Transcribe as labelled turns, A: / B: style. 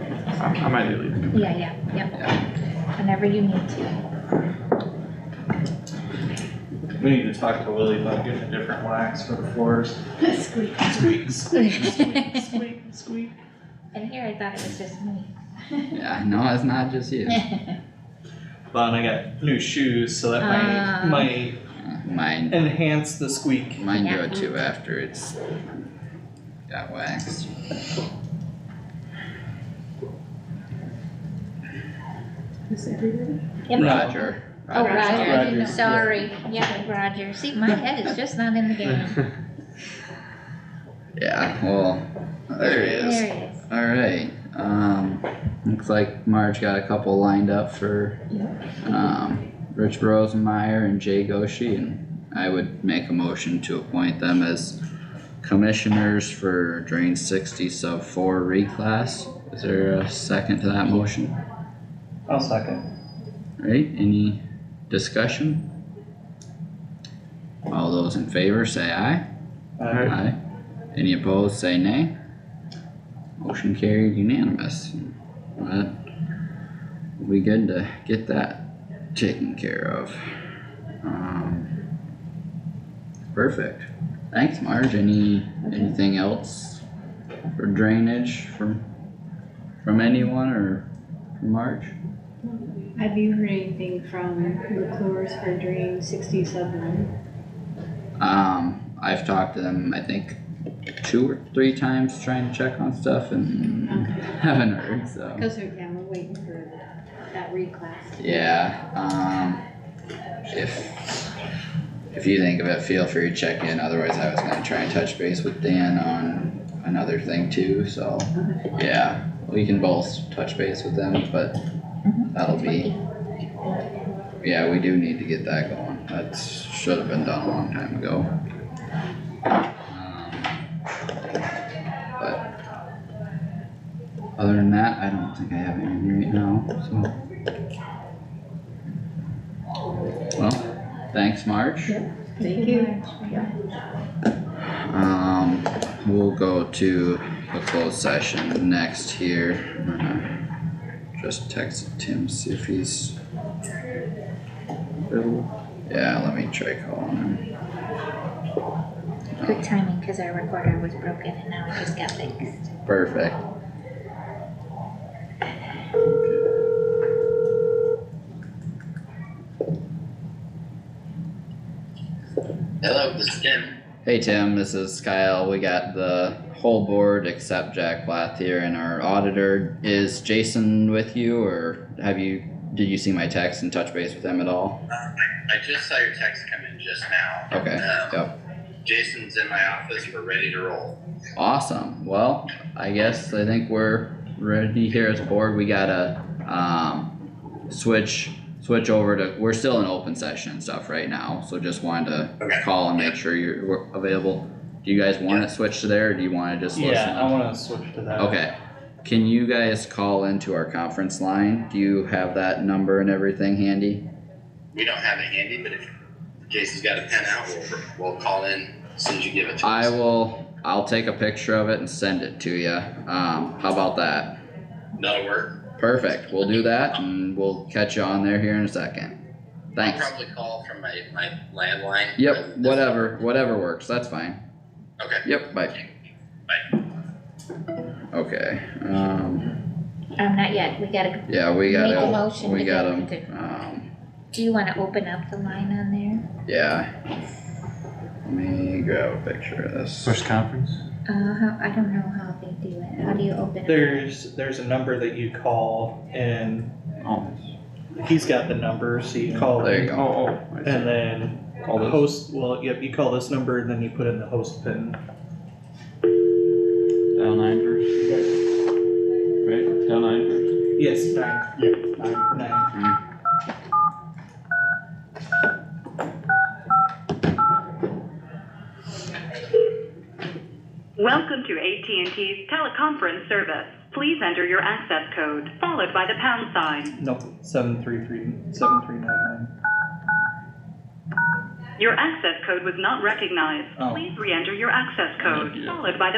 A: I might be leaving.
B: Yeah, yeah, yep. Whenever you need to.
C: We need to talk to Willie about getting a different wax for the floors.
B: Squeak.
C: Squeak,
B: And
C: squeak.
B: here I thought it was just me.
D: Yeah, no, it's not just you.
C: Well, and I got new shoes, so that might,
B: Ah.
C: might
D: Uh, Mine,
C: enhance the squeak.
D: mine
B: Yeah.
D: go too after it's got waxed.
E: Is everybody?
B: Yep.
C: No.
D: Roger.
B: Oh,
D: Roger's on.
C: Roger.
B: Roger, sorry, yeah, Roger, see, my head is just not in the game.
D: Yeah, well, there he is.
B: There he is.
D: Alright, um, looks like Marge got a couple lined up for,
E: Yep.
D: um, Rich Rosenmeyer and Jay Goshi. And I would make a motion to appoint them as commissioners for drain sixty sub four reclass. Is there a second to that motion?
C: I'll second.
D: Alright, any discussion? All those in favor say aye.
C: Uh,
D: Aye. Any opposed, say nay. Motion carried unanimous. But we'll be good to get that taken care of. Um, Perfect. Thanks, Marge. Any, anything else for drainage from, from anyone or from Marge?
E: Have you heard anything from McClure's for drain sixty-seven?
D: Um, I've talked to them, I think, two or three times trying to check on stuff and
E: Okay,
D: haven't heard, so.
E: cause we're, yeah, we're waiting for that reclass.
D: Yeah, um, if, if you think of it, feel free to check in, otherwise I was gonna try and touch base with Dan on another thing too, so. Yeah, we can both touch base with them, but that'll be. Yeah, we do need to get that going, that should have been done a long time ago. Um, But. Other than that, I don't think I have anything right now, so. Well, thanks, Marge.
E: Thank you.
D: Um, we'll go to a closed session next here. I'm gonna Just text Tim, see if he's. Yeah, let me try calling him.
B: Good timing, cause our recorder was broken and now it just got fixed.
D: Perfect.
F: Hello, this is Tim.
D: Hey Tim, this is Kyle. We got the whole board except Jack Blath here and our auditor. Is Jason with you or have you, did you see my text and touch base with him at all?
F: I just saw your text come in just now.
D: Okay,
F: Um,
D: yep.
F: Jason's in my office. We're ready to roll.
D: Awesome, well, I guess I think we're ready here as a board, we gotta, um, switch, switch over to, we're still in open session and stuff right now, so just wanted to
F: Okay.
D: call and make sure you're we're available. Do you guys wanna switch to there, or do you wanna just listen?
C: Yeah, I wanna switch to that.
D: Okay, can you guys call into our conference line, do you have that number and everything handy?
F: We don't have it handy, but if Jason's got a pen out, we'll, we'll call in as soon as you give it to
D: I
F: us.
D: will, I'll take a picture of it and send it to you, um, how about that?
F: That'll work.
D: Perfect, we'll do that and we'll catch you on there here in a second.
F: I'll
D: Thanks.
F: probably call from my, my landline.
D: Yep,
F: but-
D: whatever, whatever works, that's fine.
F: Okay.
D: Yep, bye. Okay, um,
B: Um, not yet, we gotta,
D: yeah, we
B: Make a
D: gotta,
B: motion
D: we
B: to
D: got
B: get
D: him, um,
B: do you wanna open up the line on there?
D: yeah. Let me grab a picture of this.
A: First conference?
B: Uh, how, I don't know how they do it, how do you open it?
C: There's, there's a number that you call and
A: Oh,
C: he's got the number, so you call
D: There you
C: it.
A: oh,
D: go.
A: oh. I see.
C: And then
A: Call
C: the
A: this.
C: host, well, yep, you call this number and then you put in the host pin.
A: Dial nine first. Right, dial nine first.
C: Yes, nine. Yep. Nine.
G: Welcome to AT&T's teleconference service. Please enter your access code, followed by the pound sign.
C: Nope, seven three three, seven three nine nine.
G: Your access code was not recognized.
C: Oh.
G: Please re-enter your access code,
A: Yeah.
G: followed by the